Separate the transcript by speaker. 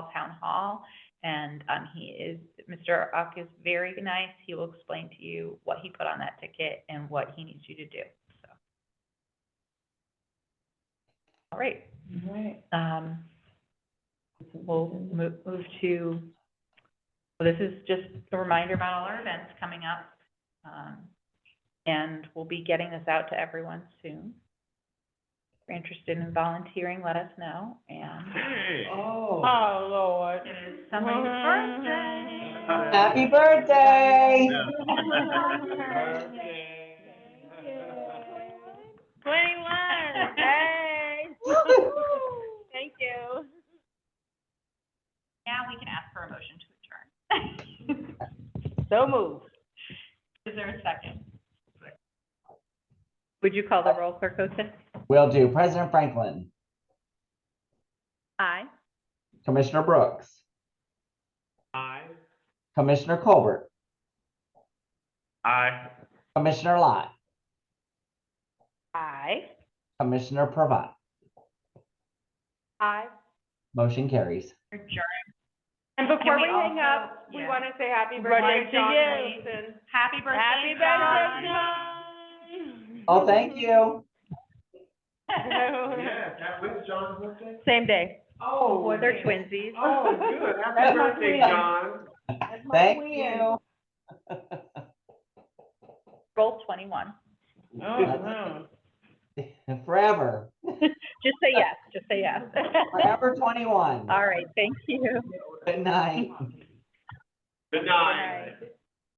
Speaker 1: Hall Town Hall. And, um, he is, Mr. Uck is very nice. He will explain to you what he put on that ticket and what he needs you to do, so. All right,
Speaker 2: Right.
Speaker 1: um, we'll move, move to, well, this is just a reminder about all our events coming up. Um, and we'll be getting this out to everyone soon. If you're interested in volunteering, let us know, and
Speaker 3: Hey.
Speaker 2: Oh.
Speaker 4: Oh, Lord.
Speaker 1: it is somebody's birthday.
Speaker 2: Happy birthday.
Speaker 4: Twenty-one, hey. Thank you.
Speaker 1: Now we can ask for a motion to adjourn.
Speaker 4: So moved.
Speaker 1: Is there a second? Would you call the roll, Clerk Otis?
Speaker 5: Will do. President Franklin,
Speaker 1: Aye.
Speaker 5: Commissioner Brooks,
Speaker 3: Aye.
Speaker 5: Commissioner Colbert,
Speaker 3: Aye.
Speaker 5: Commissioner Lott,
Speaker 4: Aye.
Speaker 5: Commissioner Pravat.
Speaker 4: Aye.
Speaker 5: Motion carries.
Speaker 1: Adjourn.
Speaker 6: And
Speaker 1: Can
Speaker 6: before
Speaker 1: we
Speaker 6: we hang
Speaker 1: also-
Speaker 6: up, we
Speaker 1: yeah.
Speaker 6: want to say happy
Speaker 4: Birthday
Speaker 6: birthday,
Speaker 4: to
Speaker 6: John
Speaker 4: you.
Speaker 6: Wilson.
Speaker 1: Happy birthday,
Speaker 4: Happy
Speaker 1: John.
Speaker 4: birthday, John.
Speaker 5: Oh, thank you.
Speaker 3: Yeah, that was John's birthday?
Speaker 4: Same day.
Speaker 6: Oh,
Speaker 1: They're twinsies.
Speaker 3: Oh, good.
Speaker 2: That's
Speaker 3: Happy
Speaker 2: my
Speaker 3: birthday,
Speaker 2: twin.
Speaker 3: John.
Speaker 5: Thank you.
Speaker 1: Roll twenty-one.
Speaker 2: Oh,
Speaker 4: Mhm.
Speaker 5: Forever,
Speaker 1: Just say yes, just say yes.
Speaker 5: forever 21.
Speaker 1: All right, thank you.
Speaker 5: Good night.
Speaker 3: Good night.